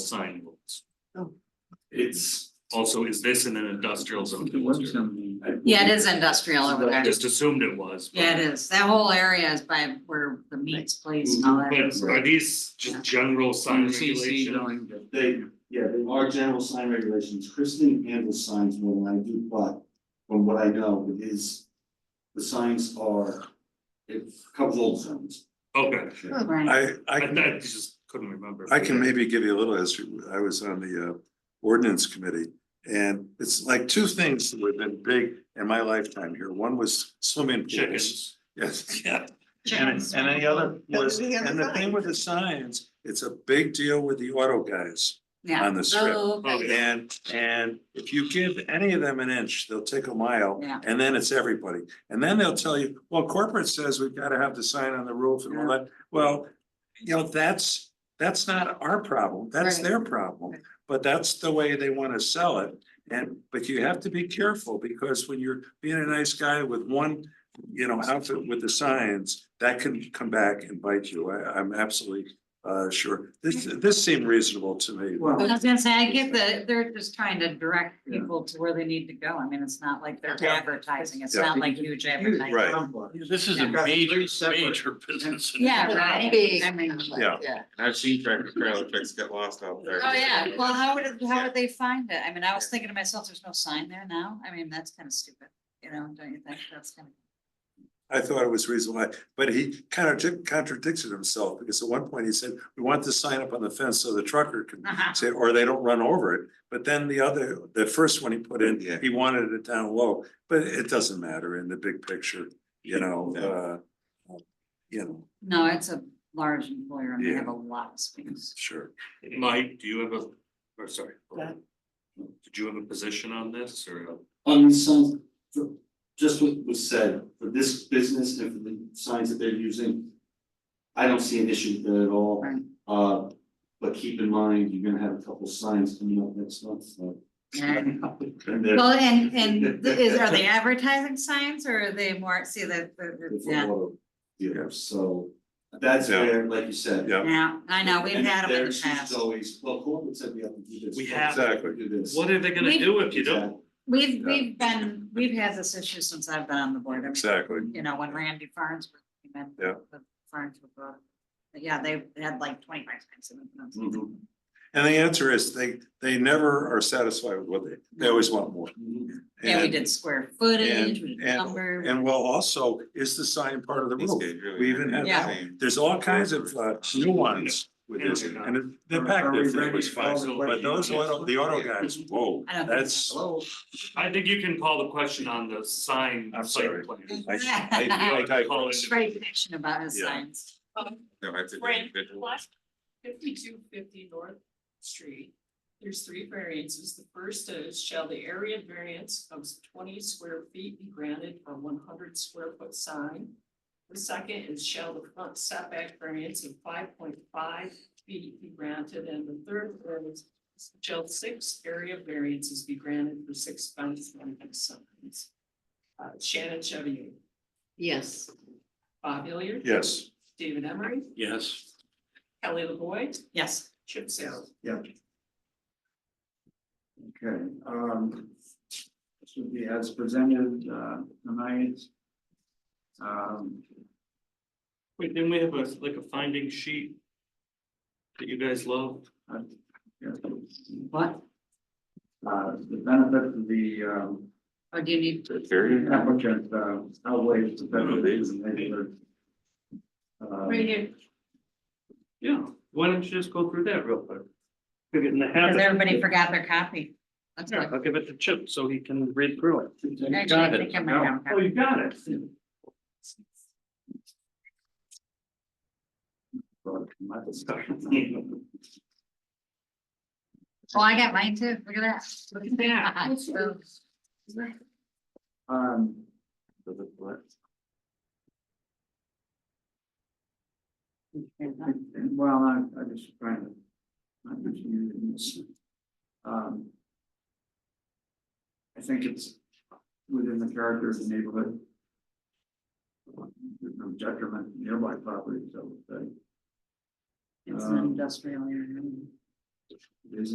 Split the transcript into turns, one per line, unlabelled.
sign rules.
Oh.
It's also, is this in an industrial zone? district?
Yeah, it is industrial over
I
there.
Just assumed it was. but-
Yeah, it is. That whole area is by where the meats place and all that. is.
But are these just general sign regulations?
They, yeah, they are general sign regulations, Kristen handles signs more than I do, but from what I know, it is. The signs are, it covers all zones.
Okay,
Right.
I,
I
I,
I
can-
just couldn't remember.
I can maybe give you a little history. I was on the uh, ordinance committee. And it's like two things that have been big in my lifetime here. One was swimming pools.
Chickens.
Yes, yeah. And,
Chickens.
and the other was,
we have a
and the thing
sign.
with the signs, it's a big deal with the auto guys
Yeah.
on the strip.
Oh,
Oh,
okay.
yeah.
And, and if you give any of them an inch, they'll take a mile.
Yeah.
And then it's everybody. And then they'll tell you, well, corporate says we've got to have the sign on the roof and all that. Well, you know, that's, that's not our problem. That's
Right.
their problem. But that's the way they want to sell it. And, but you have to be careful because when you're being a nice guy with one, you know, outfit with the signs, that can come back and bite you. I, I'm absolutely uh, sure. This, this seemed reasonable to me.
I
Well,
was gonna say, I get that they're just trying to direct people to where they need to go. I mean, it's not like they're
Yeah.
advertising. It's
Yeah.
not like huge advertising.
Right.
This is
Yeah.
a major,
Separate.
major business.
Yeah, right.
Big.
I mean,
Yeah.
I've seen tractor trailer trucks get lost out there.
oh, yeah. Well, how would, it- how would they find it? I mean, I was thinking to myself, there's no sign there now. I mean, that's kind of stupid, you know, don't you think? That's kind of.
I thought it was reasonable, but he kind of contradicted himself because at one point he said, we want the sign up on the fence so the trucker can
Uh-huh.
say, or they don't run over it. But then the other, the first one he put in,
Yeah.
he wanted it down low, but it doesn't matter in the big picture, you know, uh, you know,
No, it's a large employer and they
Yeah.
have a lot of space.
sure.
Mike, do you have a, or sorry.
Yeah.
Did you have a position on this or?
on the signs, for- just what was said, for this business and for the signs that they're using. I don't see an issue with that at all,
Right.
uh, but keep in mind, you're gonna have a couple signs coming up next month, so.
Yeah.
And they're-
Well, and, and th- is, are they advertising signs or are they more, see that,
It's a
yeah,
auto dealer, so that's
Yeah.
where, like you said.
Yeah.
yeah, I know, we've
And
had them
their
in the
issues
past.
Always, well, corporate said we have to do this.
We have-
corporate said we Do this.
What are they gonna
We-
do if you don't?
We've, we've been, we've had this issue since I've been on the board. I mean,
Exactly.
You know, when Randy Farnsworth came in.
Yeah.
the Farnsworth brought, it. but yeah, they had like twenty-five signs.
Mm-hmm.
Mhm.
And the answer is they, they never are satisfied with what they, they always want more.
Mhm.
Yeah, we
And-
did square footage, we did
and-
number.
And well, also, is the sign part of the
These
roof?
guys really
We even
are
had
Yeah.
insane.
There's all kinds of uh, nuance with this, and it- the pack
Are we
thing
ready
was
to
fine,
call the
but
question?
those auto, the auto guys, whoa,
I don't think
that's.
Hello?
I think you can call the question on the sign.
I'm
site
sorry.
plan.
I- I- I type-
Call it-
Great connection about his
Yeah.
signs.
No, I think.
Brent,
individual.
plus fifty-two fifty North Street, there's three variances. The first is shall the area variance of twenty square feet be granted for one hundred square foot sign? The second is shall the front setback variance of five point five feet be granted? And the third is shall six area variances be granted for six fence and signs? Uh, Shannon Chevy,
Yes.
Bob Hilliard.
Yes,
David Emery,
Yes.
Kelly LaVoy,
Yes.
Chip Saylor.
Yeah. Okay, um. This would be as presented, uh, tonight. Um,
Wait, didn't we have a, like a finding sheet? That you guys love?
I- yeah.
What?
Uh, the benefit of the, um,
Or do you need?
applicant, uh, outweighs the benefit of the neighbor. Uh,
here.
Yeah, why don't you just go through that real quick? We're getting the
Cause
habit.
everybody forgot their copy. That's
Yeah,
what.
I'll give it to Chip so he can read through it.
Actually, I think I might have a
Oh,
copy.
you got it.
but my discussion.
Oh, I got mine too. Look at that. Look at that.
Um, And- and Well, I, I just trying to. I'm just using this. Um. I think it's within the character of the neighborhood. There's no detriment to nearby property, so. Um,
It's an industrial area.
There's